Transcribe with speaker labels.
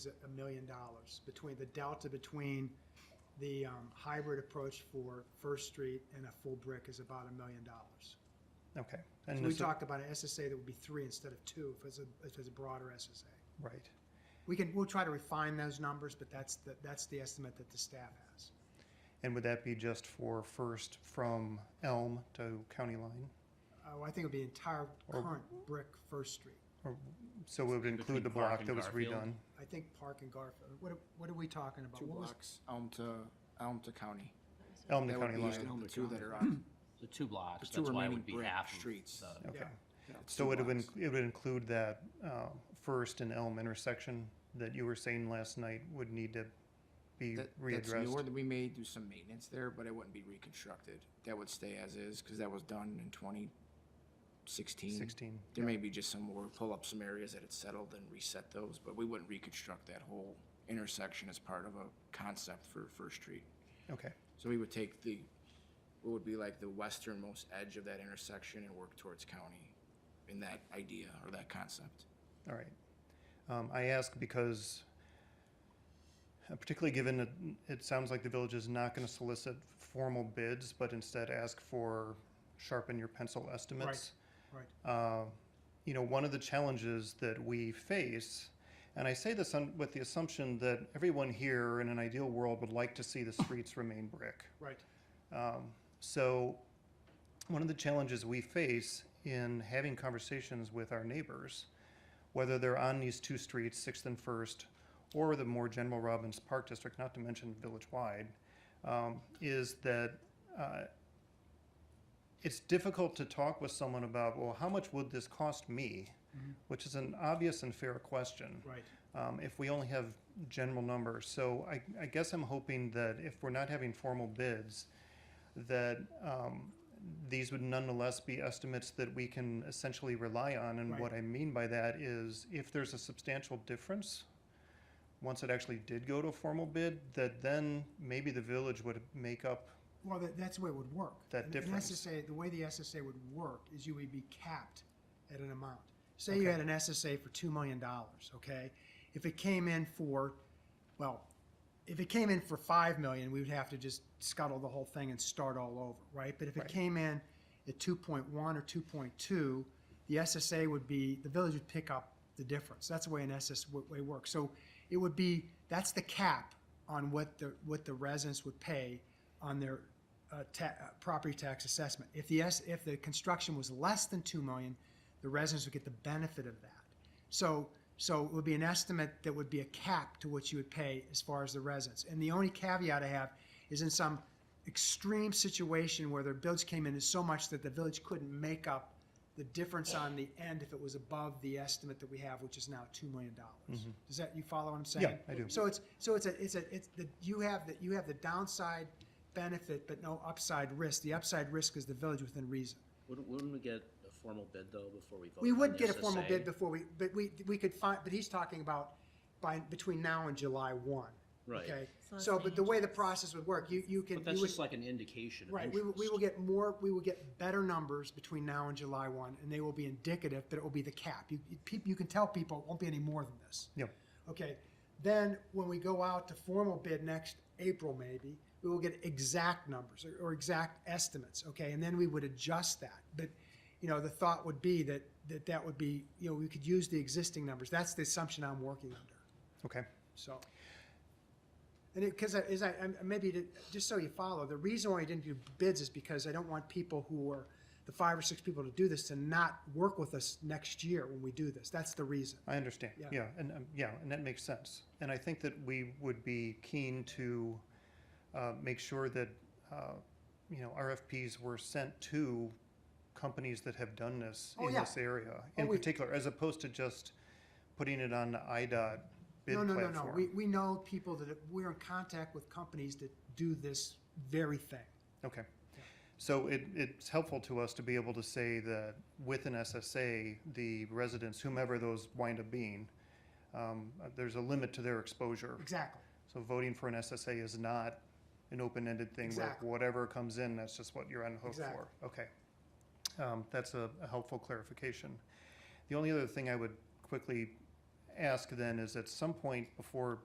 Speaker 1: a million dollars between the delta between the um, hybrid approach for First Street and a full brick is about a million dollars.
Speaker 2: Okay.
Speaker 1: So
Speaker 2: And
Speaker 1: We
Speaker 2: is it-
Speaker 1: talked about an SSA that would be three instead of two if it's a, if it's a broader SSA.
Speaker 2: Right.
Speaker 1: We can, we'll try to refine those numbers, but that's, the that's the estimate that the staff has.
Speaker 2: And would that be just for first from Elm to County Line?
Speaker 1: Oh, I think it'd be entire
Speaker 2: Or-
Speaker 1: current brick First Street.
Speaker 2: Or, so it would
Speaker 3: Between
Speaker 2: include the
Speaker 3: Park
Speaker 2: block
Speaker 3: and
Speaker 2: that was
Speaker 3: Garfield?
Speaker 2: redone?
Speaker 1: I think Park and Garfield, what, are- what are we talking about?
Speaker 4: Two
Speaker 1: What was-
Speaker 4: blocks, Elm to, Elm to County.
Speaker 2: Elm to
Speaker 4: That would
Speaker 2: County
Speaker 4: be
Speaker 2: Line?
Speaker 4: the two that are on.
Speaker 3: The two blocks,
Speaker 4: The two
Speaker 3: that's why it
Speaker 4: remaining
Speaker 3: would be
Speaker 4: brick
Speaker 3: half of
Speaker 4: streets.
Speaker 3: the-
Speaker 2: Okay.
Speaker 1: Yeah.
Speaker 4: yeah, it's
Speaker 2: So
Speaker 4: two
Speaker 2: it would,
Speaker 4: blocks.
Speaker 2: inc- it would include that uh, first and Elm intersection that you were saying last night would need to be
Speaker 4: That- That's
Speaker 2: readdressed?
Speaker 4: newer, that we may do some maintenance there, but it wouldn't be reconstructed. That would stay as is, because that was done in twenty sixteen.
Speaker 2: 16.
Speaker 4: There may be just some more, pull up some areas that it's settled and reset those, but we wouldn't reconstruct that whole intersection as part of a concept for First Street.
Speaker 2: Okay.
Speaker 4: So we would take the, what would be like the westernmost edge of that intersection and work towards county in that idea or that concept.
Speaker 2: All right. Um, I ask because, uh, particularly given that it sounds like the village is not going to solicit formal bids, but instead ask for sharpen your pencil estimates.
Speaker 1: Right,
Speaker 2: Uh, you know, one of the challenges that we face, and I say this on, with the assumption that everyone here in an ideal world would like to see the streets remain brick.
Speaker 1: right.
Speaker 2: Um, so, one of the challenges we face in having conversations with our neighbors, whether they're on these two streets, Sixth and First, or the more general Robbins Park District, not to mention village-wide, um, is that uh, it's difficult to talk with someone about, well, how much would this cost me? Which is an obvious and fair question
Speaker 1: Right.
Speaker 2: um, if we only have general numbers. So I, I guess I'm hoping that if we're not having formal bids, that um, these would nonetheless be estimates that we can essentially rely on. And what I mean by that is if there's a substantial difference, once it actually did go to a formal bid, that then maybe the village would make up,
Speaker 1: Well, that, that's the way it would work.
Speaker 2: That
Speaker 1: And the
Speaker 2: difference.
Speaker 1: SSA, the way the SSA would work is you would be capped at an amount. Say you
Speaker 2: Okay.
Speaker 1: had an SSA for two million dollars, okay? If it came in for, well, if it came in for five million, we would have to just scuttle the whole thing and start all over, right? But if it
Speaker 2: Right.
Speaker 1: came in at two point one or two point two, the SSA would be, the village would pick up the difference. That's the way an SSA works. So it would be, that's the cap on what the, what the residents would pay on their uh, ta- uh, property tax assessment. If the S, if the construction was less than two million, the residents would get the benefit of that. So, so it would be an estimate that would be a cap to what you would pay as far as the residents. And the only caveat I have is in some extreme situation where their bills came in as so much that the village couldn't make up the difference on the end if it was above the estimate that we have, which is now two million dollars. Does that, you follow what I'm saying?
Speaker 2: Mm-hmm. Yeah, I do.
Speaker 1: So it's, so it's a, it's a, it's the, you have the, you have the downside benefit, but no upside risk. The upside risk is the village within reason.
Speaker 5: Wouldn't, wouldn't we get a formal bid though before we vote?
Speaker 1: We
Speaker 5: on
Speaker 1: would
Speaker 5: the
Speaker 1: get a formal bid
Speaker 5: SSA?
Speaker 1: before we, but we, we could find, but he's talking about by, between now and July one.
Speaker 5: Right.
Speaker 1: Okay,
Speaker 6: So that's
Speaker 1: so,
Speaker 6: the
Speaker 1: but the way the process would work, you, you can.
Speaker 5: But that's
Speaker 1: you would-
Speaker 5: just like an indication of
Speaker 1: Right, we, will- we will
Speaker 5: interest.
Speaker 1: get more, we will get better numbers between now and July one, and they will be indicative, but it will be the cap. You, you- peop- you can tell people it won't be any more than this.
Speaker 2: you know,
Speaker 1: Okay, then when we go out to formal bid next April, maybe, we will get exact numbers or, or exact estimates, okay? And then we would adjust that. But, you know, the thought would be that, that that would be, you know, we could use the existing numbers. That's the assumption I'm working under,
Speaker 2: okay.
Speaker 1: so. And it, because as I, I'm- maybe, to- just so you follow, the reason why I didn't do bids is because I don't want people who are, the five or six people to do this to not work with us next year when we do this. That's the reason.
Speaker 2: I understand,
Speaker 1: Yeah.
Speaker 2: yeah, and, um, yeah, and that makes sense. And I think that we would be keen to uh, make sure that, uh, you know, RFPs were sent to companies that have done this
Speaker 1: Oh,
Speaker 2: in
Speaker 1: yeah.
Speaker 2: this area,
Speaker 1: Oh,
Speaker 2: in
Speaker 1: we-
Speaker 2: particular, as opposed to just putting it on the IDOT bid
Speaker 1: No,
Speaker 2: platform.
Speaker 1: no, no, no. We, we know people that, we're in contact with companies that do this very thing.
Speaker 2: Okay. So it, it's helpful to us to be able to say that with an SSA, the residents, whomever those wind up being, um, uh, there's a limit to their exposure.
Speaker 1: Exactly.
Speaker 2: So voting for an SSA is not an open-ended thing where
Speaker 1: Exactly.
Speaker 2: whatever comes in, that's just what you're on the hook
Speaker 1: Exactly.
Speaker 2: for. Okay. Um, That's a a helpful clarification. The only other thing I would quickly ask then is at some point before